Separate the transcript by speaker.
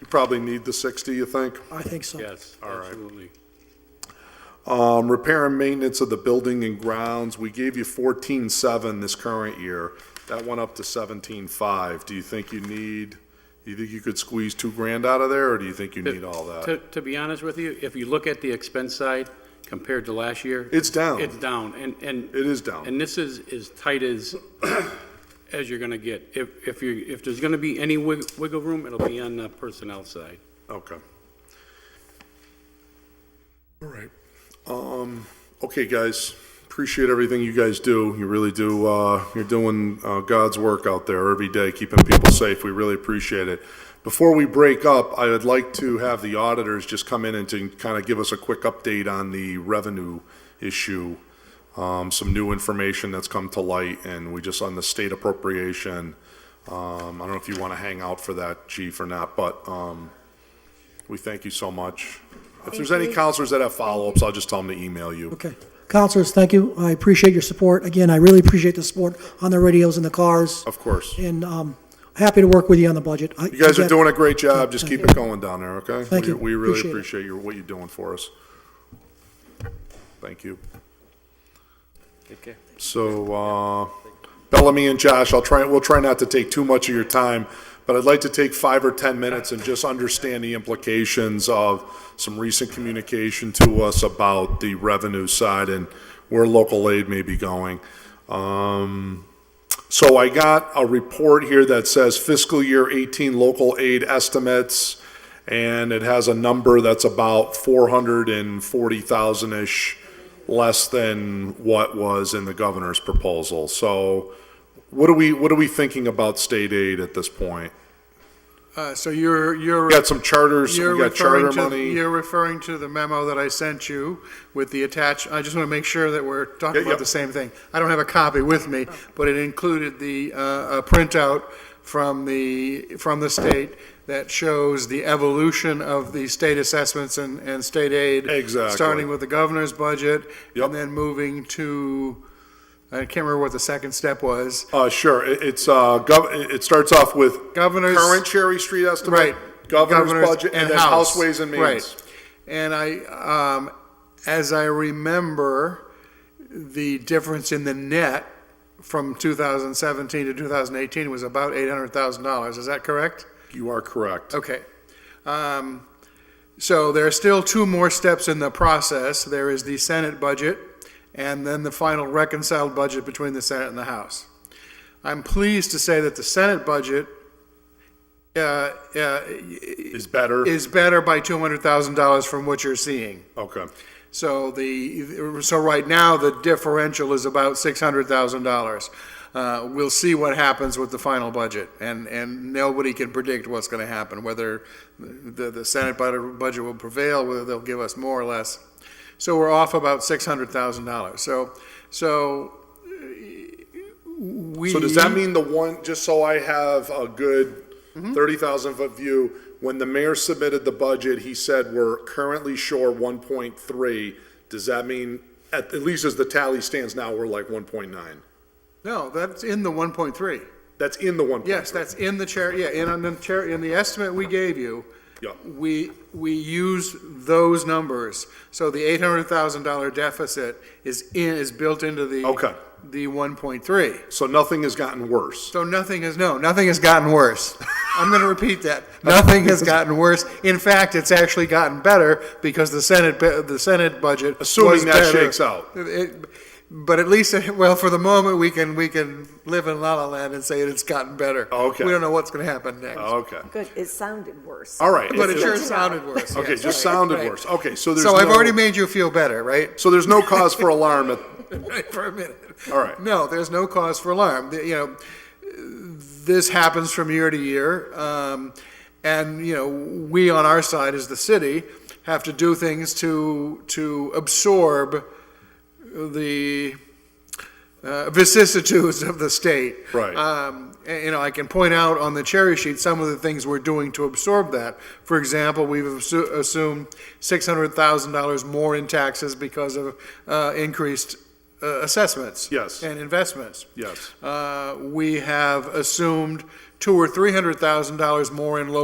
Speaker 1: You probably need the 60, you think?
Speaker 2: I think so.
Speaker 3: Yes, absolutely.
Speaker 1: Um, repair and maintenance of the building and grounds, we gave you fourteen seven this current year. That went up to seventeen five. Do you think you need, you think you could squeeze two grand out of there, or do you think you need all that?
Speaker 3: To, to be honest with you, if you look at the expense side compared to last year.
Speaker 1: It's down.
Speaker 3: It's down, and, and.
Speaker 1: It is down.
Speaker 3: And this is as tight as, as you're gonna get. If, if you, if there's gonna be any wig- wiggle room, it'll be on the personnel side.
Speaker 1: Okay. All right. Um, okay, guys, appreciate everything you guys do. You really do, uh, you're doing, uh, God's work out there every day, keeping people safe. We really appreciate it. Before we break up, I would like to have the auditors just come in and to kind of give us a quick update on the revenue issue. Um, some new information that's come to light and we just on the state appropriation. Um, I don't know if you want to hang out for that, chief, or not, but, um, we thank you so much. If there's any counselors that have follow-ups, I'll just tell them to email you.
Speaker 2: Okay. Counselors, thank you. I appreciate your support. Again, I really appreciate the support on the radios and the cars,
Speaker 1: Of course. You
Speaker 2: and um, happy to work with you on the budget. You
Speaker 1: guys are doing a great job. Just keep it going down there, okay?
Speaker 2: Thank
Speaker 1: We-
Speaker 2: you.
Speaker 1: We really
Speaker 2: Appreciate it.
Speaker 1: appreciate your, what you're doing for us. Thank you.
Speaker 4: Take care.
Speaker 1: So, uh, Bellamy and Josh, I'll try, we'll try not to take too much of your time, but I'd like to take five or 10 minutes and just understand the implications of some recent communication to us about the revenue side and where local aid may be going. Um, So I got a report here that says fiscal year 18 local aid estimates, and it has a number that's about 440,000-ish less than what was in the governor's proposal. So what are we, what are we thinking about state aid at this point?
Speaker 5: Uh, So you're, you're.
Speaker 1: We got some charters,
Speaker 5: you're
Speaker 1: we got
Speaker 5: referring
Speaker 1: charter
Speaker 5: to-
Speaker 1: money.
Speaker 5: You're referring to the memo that I sent you with the attach, I just want to make sure that we're talking
Speaker 1: Yeah, yeah.
Speaker 5: about the same thing. I don't have a copy with me, but it included the, uh, a printout from the, from the state that shows the evolution of the state assessments and, and state aid.
Speaker 1: Exactly.
Speaker 5: Starting with the governor's budget.
Speaker 1: Yep.
Speaker 5: And then moving to, I can't remember what the second step was.
Speaker 1: Uh, sure, it, it's, uh, gov, it it starts off with
Speaker 5: Governor's.
Speaker 1: current Cherry Street estimate.
Speaker 5: Right.
Speaker 1: Governor's budget and then House Ways and Means.
Speaker 5: Right. And I, um, as I remember, the difference in the net from 2017 to 2018 was about $800,000. Is that correct?
Speaker 1: You are correct.
Speaker 5: Okay. Um, So there are still two more steps in the process. There is the Senate budget, and then the final reconciled budget between the Senate and the House. I'm pleased to say that the Senate budget uh, uh,
Speaker 1: Is better?
Speaker 5: is better by two hundred thousand dollars from what you're seeing.
Speaker 1: Okay,
Speaker 5: So the, so right now, the differential is about six hundred thousand dollars. Uh, we'll see what happens with the final budget, and, and nobody can predict what's gonna happen, whether the, the Senate bud- budget will prevail, whether they'll give us more or less. So we're off about six hundred thousand dollars, so, so we.
Speaker 1: so does that mean the one, just so I have a good
Speaker 5: Mm-hmm.
Speaker 1: thirty thousand foot view, when the mayor submitted the budget, he said we're currently short one point three. Does that mean, at, at least as the tally stands now, we're like one point nine?
Speaker 5: No, that's in the one point three.
Speaker 1: That's in the one point three?
Speaker 5: Yes, that's in the chair, yeah, in, on the chair, in the estimate we gave you,
Speaker 1: Yeah,
Speaker 5: we, we use those numbers. So the eight hundred thousand dollar deficit is in, is built into the.
Speaker 1: Okay.
Speaker 5: The one point three.
Speaker 1: so nothing has gotten worse.
Speaker 5: So nothing has, no, nothing has gotten worse. I'm gonna repeat that. Nothing has gotten worse. In fact, it's actually gotten better because the Senate, bu- the Senate budget. was
Speaker 1: Assuming that
Speaker 5: better.
Speaker 1: shakes out.
Speaker 5: It- But at least, well, for the moment, we can, we can live in la la land and say it's gotten better.
Speaker 1: Okay.
Speaker 5: We don't know what's gonna happen next.
Speaker 1: Okay,
Speaker 6: Good, it sounded worse.
Speaker 1: all right.
Speaker 5: But it sure
Speaker 6: Good to know.
Speaker 5: sounded worse.
Speaker 1: Okay,
Speaker 5: yes.
Speaker 1: just sounded
Speaker 5: Right.
Speaker 1: worse. Okay, so there's
Speaker 5: So I've
Speaker 1: no-
Speaker 5: already made you feel better, right?
Speaker 1: So there's no cause for alarm at,
Speaker 5: For a minute.
Speaker 1: all right.
Speaker 5: No, there's no cause for alarm. The- You know, this happens from year to year. Um, and, you know, we on our side as the city have to do things to, to absorb the uh, vicissitudes of the state.
Speaker 1: Right.
Speaker 5: Um, and, you know, I can point out on the cherry sheet some of the things we're doing to absorb that. For example, we've assu- assumed six hundred thousand dollars more in taxes because of uh, increased uh, assessments.
Speaker 1: Yes.
Speaker 5: And investments.
Speaker 1: Yes.
Speaker 5: Uh, we have assumed two or three hundred thousand dollars more in local